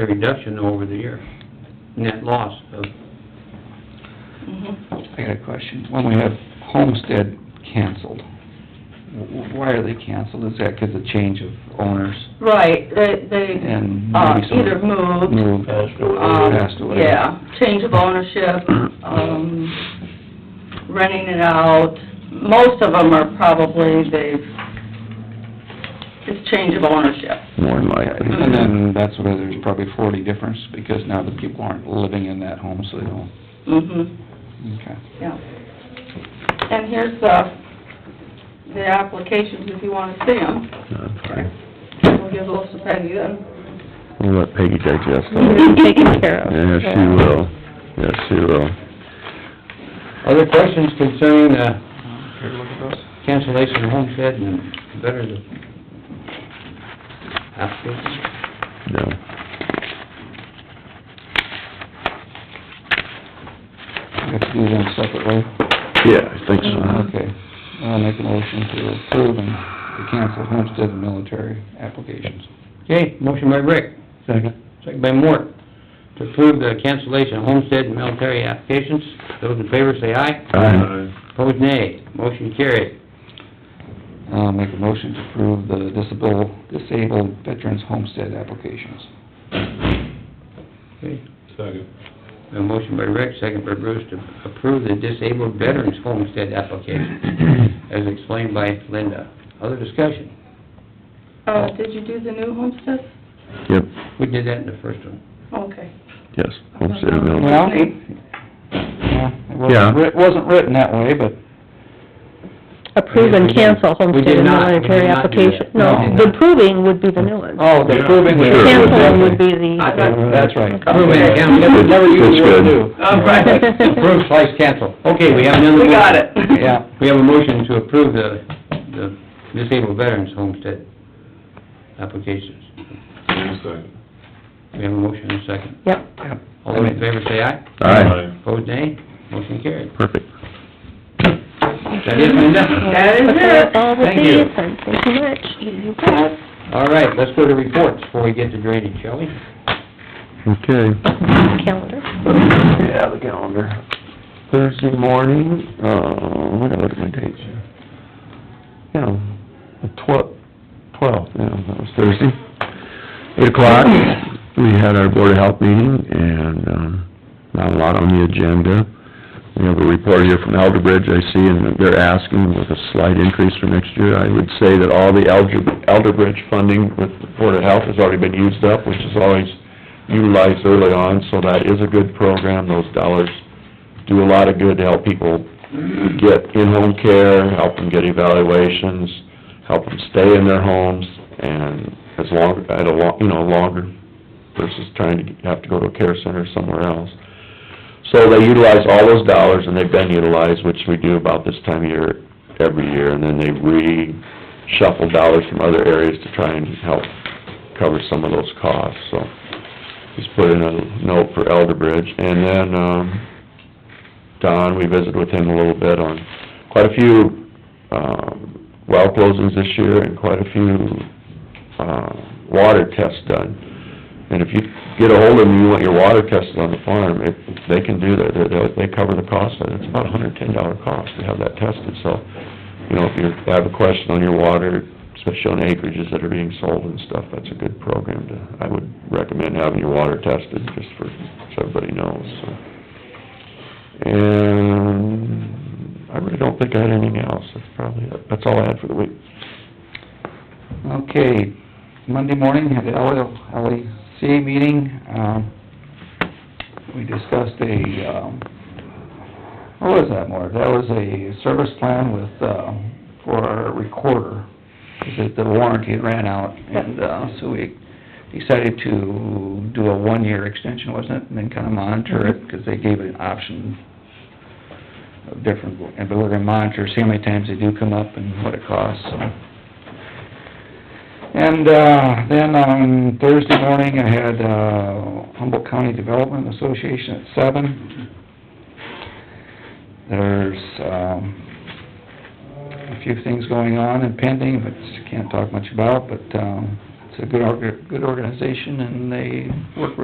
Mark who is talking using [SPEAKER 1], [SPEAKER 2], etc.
[SPEAKER 1] a reduction over the year, net loss of,
[SPEAKER 2] Mm-hmm.
[SPEAKER 3] Mhm.
[SPEAKER 4] I got a question. When we have homestead canceled, wh- why are they canceled? Is that 'cause of change of owners
[SPEAKER 3] Right, they, they,
[SPEAKER 4] and
[SPEAKER 3] uh,
[SPEAKER 4] maybe some...
[SPEAKER 3] either moved,
[SPEAKER 4] Moved.
[SPEAKER 5] Passed
[SPEAKER 3] um,
[SPEAKER 4] Passed away.
[SPEAKER 3] yeah, change of ownership, um, renting it out. Most of them are probably, they've, it's change of ownership.
[SPEAKER 4] More than likely. And
[SPEAKER 3] Mm-hmm.
[SPEAKER 4] then that's where there's probably forty difference, because now the people aren't living in that home, so they don't,
[SPEAKER 3] hmm
[SPEAKER 4] okay.
[SPEAKER 3] yeah. And here's the, the applications if you wanna see them. We'll give those to Peggy then.
[SPEAKER 6] We'll let Peggy digest all that.
[SPEAKER 2] You're taken care of.
[SPEAKER 6] Yes, she will. Yes, she will.
[SPEAKER 1] other questions concerning, uh,
[SPEAKER 4] Here, look at those.
[SPEAKER 1] cancellation of homestead and better the application?
[SPEAKER 6] No.
[SPEAKER 4] We have to do them separately. Mm-hmm.
[SPEAKER 6] Yeah, I think
[SPEAKER 3] Mm-hmm.
[SPEAKER 6] so.
[SPEAKER 4] Okay. I'll make a motion to approve and to cancel homestead and military applications.
[SPEAKER 1] Okay, motion by Rick,
[SPEAKER 4] Second.
[SPEAKER 1] second by Mort, to approve the cancellation of homestead and military applications. Those in favor say aye.
[SPEAKER 6] Aye.
[SPEAKER 1] Opposed, nay. Motion carried.
[SPEAKER 4] I'll make a motion to approve the disable, disabled veterans homestead applications.
[SPEAKER 1] Okay.
[SPEAKER 5] Second.
[SPEAKER 1] A motion by Rick, second by Bruce, to approve the disabled veterans homestead application, as explained by Linda. Other discussion?
[SPEAKER 3] Uh, did you do the new homestead?
[SPEAKER 6] Yep,
[SPEAKER 1] We did that in the first one.
[SPEAKER 3] Okay.
[SPEAKER 6] yes, homestead and military.
[SPEAKER 4] Well, yeah, it
[SPEAKER 6] Yeah.
[SPEAKER 4] wasn't, writ- it wasn't written that way, but
[SPEAKER 2] Approve and cancel homestead and
[SPEAKER 1] not. We did
[SPEAKER 2] military
[SPEAKER 1] not do that.
[SPEAKER 2] application.
[SPEAKER 4] We did
[SPEAKER 2] No, the approving would be the new one.
[SPEAKER 4] Oh, the approving was...
[SPEAKER 6] Sure.
[SPEAKER 2] Canceling would be
[SPEAKER 1] I
[SPEAKER 2] the,
[SPEAKER 1] thought-
[SPEAKER 4] That's right.
[SPEAKER 1] Approve and cancel, never, never use the word new. All right. Approve slash cancel. Okay, we have another...
[SPEAKER 3] We got
[SPEAKER 1] motion.
[SPEAKER 3] it.
[SPEAKER 1] Yeah, we have a motion to approve the, the disabled veterans homestead applications.
[SPEAKER 5] Second.
[SPEAKER 1] We have a motion and a second.
[SPEAKER 2] yep.
[SPEAKER 1] All those in favor say aye.
[SPEAKER 6] Aye,
[SPEAKER 1] Opposed, nay. Motion carried.
[SPEAKER 6] perfect.
[SPEAKER 1] Is that it, Linda?
[SPEAKER 3] That is it.
[SPEAKER 2] All the
[SPEAKER 1] Thank you.
[SPEAKER 2] fees, and thank you much. You bet.
[SPEAKER 1] All right, let's go to reports before we get to drainage, shall we?
[SPEAKER 6] Okay.
[SPEAKER 2] Calendar.
[SPEAKER 6] Yeah, the calendar. Thursday morning, uh, what are my dates here? Yeah, the twelfth, twelfth, yeah, that was Thursday. Eight o'clock, we had our Board of Health meeting, and, um, not a lot on the agenda. We have a report here from Elder Bridge, I see, and they're asking with a slight increase for next year. I would say that all the Elder, Elder Bridge funding with Board of Health has already been used up, which is always utilized early on, so that is a good program. Those dollars do a lot of good to help people get in-home care, help them get evaluations, help them stay in their homes, and as long, at a lo, you know, longer versus trying to have to go to a care center somewhere else. So they utilize all those dollars, and they've been utilized, which we do about this time of year, every year, and then they reshuffle dollars from other areas to try and help cover some of those costs, so just put in a note for Elder Bridge. And then, um, Don, we visited with him a little bit on quite a few, um, well closings this year and quite a few, uh, water tests done. And if you get ahold of them, you want your water tested on the farm, if they can do that, they, they cover the cost, of it. it's about a hundred and ten dollar cost to have that tested, so, you know, if you have a question on your water, especially on acreages that are being sold and stuff, that's a good program to, I would recommend having your water tested, just for, so everybody knows, so. And I really don't think I had anything else, that's probably, it. that's all I had for the week.
[SPEAKER 4] Okay, Monday morning, we had the LL LEC meeting, um, we discussed a, um, what was that, Mort? That was a service plan with, um, for our recorder, because the warranty had ran out, and, uh, so we decided to do a one-year extension, wasn't it, and then kinda monitor it, because they gave an option of different, and but we're gonna monitor, see how many times they do come up and what it costs, so. And, uh, then on Thursday morning, I had, uh, Humboldt County Development Association at seven. There's, um, a few things going on and pending, but can't talk much about, but, um, it's a good org, good organization, and they work